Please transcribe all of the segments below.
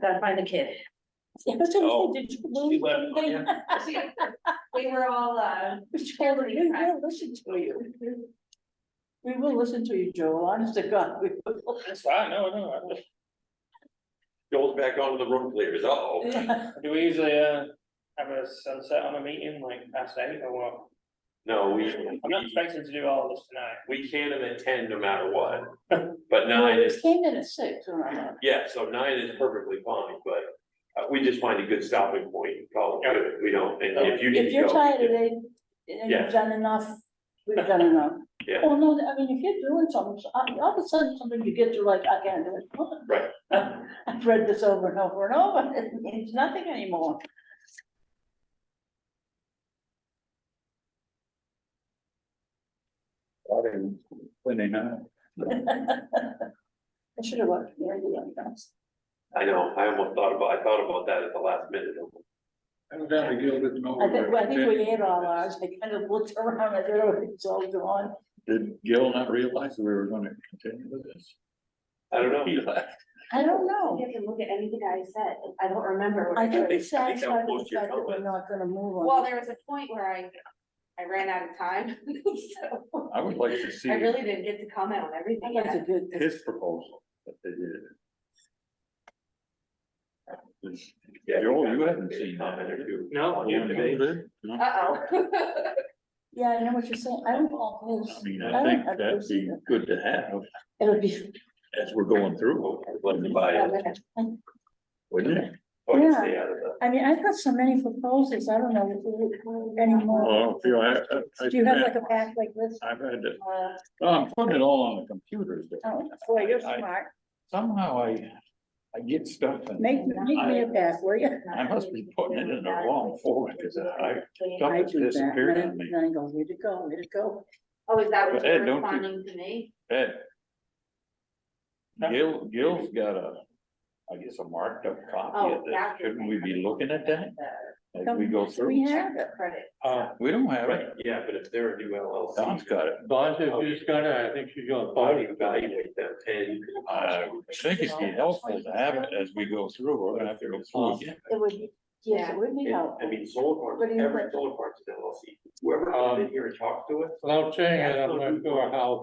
gotta find the kid. Yeah, I was trying Oh, to say, did you she lose left, something? We were all, uh, We will listen to you. We will listen to you, Joel, honest to God, we will. That's fine, no, no, I'm just. Goes back onto the road clears, uh-oh. Do we usually, uh, have a sunset on a meeting like past eight or what? No, we, I'm not expecting to do all this tonight. we can and attend no matter what, but nine It is, came in at six, or not. yeah, so nine is perfectly fine, but. Uh, we just find a good stopping point, and call it good, we don't, and if you If need to you're go- tired of it, and Yeah. you've done enough, we've done enough. Yeah. Well, no, I mean, if you're doing something, so- I- all of a sudden, something you get to like, I can't do it. Right. I've read this over and over and over, it means nothing anymore. When they know. I should have watched the radio, I guess. I know, I almost thought about, I thought about that at the last minute, Evidently Gilbert I think, Melville. I think we had all ours, I kind of looked around, I don't know if it's all gone. Did Gil not realize that we were gonna continue with this? I don't know. He left. I don't know. you have to look at anything I said, I don't remember. what I I think wrote. we think- I think that satisfied with was the your fact that we're comment. not gonna move Well, on. there was a point where I, I ran out of time, so I would like to see I really didn't get to comment on everything. That's a good, his proposal that they did. Yeah, Joel, you haven't seen that, have you? No. On you today. No? Uh, Uh-oh. yeah, I know what you're saying, I don't know I his, mean, I I don't- think I've that'd seen be it. good to have it'll be. as we're going through, Let me buy it, wouldn't it? or you Yeah. Oh, stay out of the, I mean, I've got so many proposals, I don't know anymore. Oh, I feel I, I- I. Do you have like a pack like this? I've had to, Uh, oh, I'm putting it all on the computer. but Oh, boy, you're I- smart, Somehow I, I get stuff and. make, make me a pack, will you? I must be putting it in the wrong format, because I, Oh, Don't I just do that, disappear and on I- me. and I go, where'd it go, where'd it go? Oh, is that what Ed, you're don't you- responding to me? Ed. Gil, Gil's got a, I guess, a marked up copy of Oh, this, that's- shouldn't we be looking at that The as we go We through? have it, credit. Uh, We don't have right, it, yeah, but if they're a new LLC. Don's got it, Bonds, if she's gonna, I think she's gonna How do party. you evaluate them and I think it'd be helpful to have it as we go through, we're gonna have to go through again. it would, be- yes, Yeah. it would be And, I helpful. mean, solar farms, What do you every think? solar farm's an LLC, whoever comes in here and talks to us, Without saying it, I'm not sure how,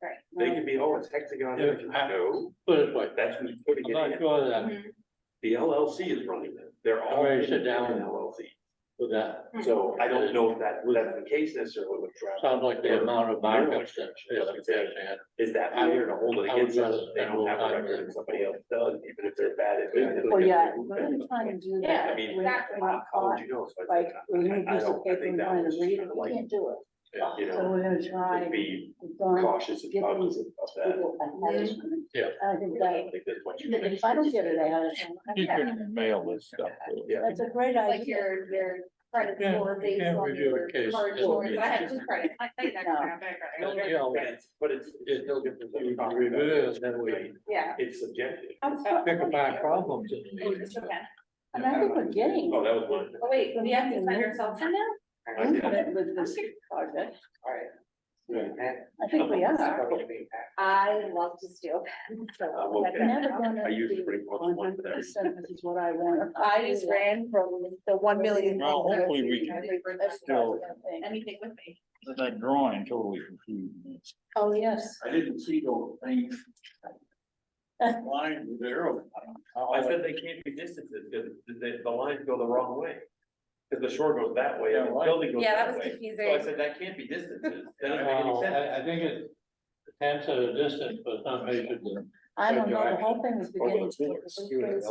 Right, they can be, oh, it's hexagon, Energy." Yeah. no, put it like, that's who's putting I'm it not in. sure of that, Mhm. The LLC is running them, they're all. Alright, sit down. independent LLC, with that. Hmm. so I don't know if that, that's the case necessarily with Travis, Sounds like the amount of markups that. is that I- fair to hold it I would against us, rather they don't have a spend more time record and than- somebody else does, even if they're bad at. it, they're Oh, yeah, gonna- we're gonna try and do Yeah, that. I mean, We're not exactly. gonna be How would caught, you know? So I Like, think- we're gonna I- I use a don't- I paper think and that trying was to read it, kinda we like, can't do it, You so know, we're gonna try. be We've gone- cautious and get conscious these of that. people ahead. Yeah. I think I that, don't think that's what you. if I don't get it out of You them, can mail this stuff. to us. Yeah. that's a great Like idea. your, your credit Yeah, score you based can't on review a your case. card It's- scores. I have two credits. I think that's No. not No, bad. yeah, But it's, but it's, it's still good for you to talk about it. It is, then we Yeah. It's subjective. I'm so- pick up our problems. Oh, it's okay. Oh, And I think we're getting. Oh, that was one. Oh, wait, we have to sign ourselves in now? I did. But With this project, Yeah. I think we are. I love to steal. I'm so okay. We're never gonna I usually be bring one to one for that. 100% This is what I want. I just ran from the one million. Well, hopefully we can still- Anything with me. That drawing totally confused me. Oh, yes. I didn't see those things. Line there. I don't know how I said they can't be distances, because the, the lines go the wrong way. Because the shore goes that way, and the building goes Yeah, that that was way. So I confusing. said, that can't be distances, that doesn't make any Well, sense. I, I think it depends on the distance, but not measured. I don't know, the whole thing was beginning to get confused.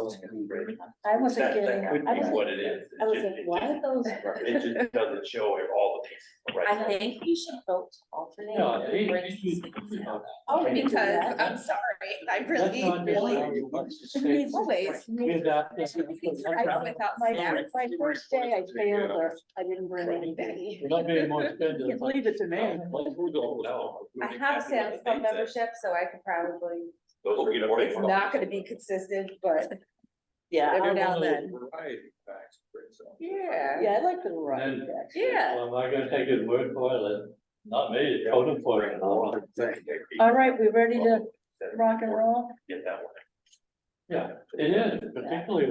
I wasn't That, that could getting, I be was what it is. I It's was just- like, it why just- are those? It just doesn't show all the pieces. I right? think we should vote to alternate. No, or he- bring he- something he- out. Oh, we can do Because, that. I'm sorry, I really, Let's not just really. allow you much to say. Please. Always. We're not- this is- I- Without My, snacks. my first day I failed or I didn't bring anything. We're not being more expensive. You Leave it to me. Like, we're going down. No. I have a Sam's Club membership, so I could probably, Those are good it's points. not gonna be consistent, but Yeah, every I- now and then. Variety facts, for example. Yeah. yeah, I like the ride. And- actually. Yeah. Well, am I gonna take his word for it? Then Not me, code enforcement. All right, we ready to rock and roll? Get that one. Yeah, it is, particularly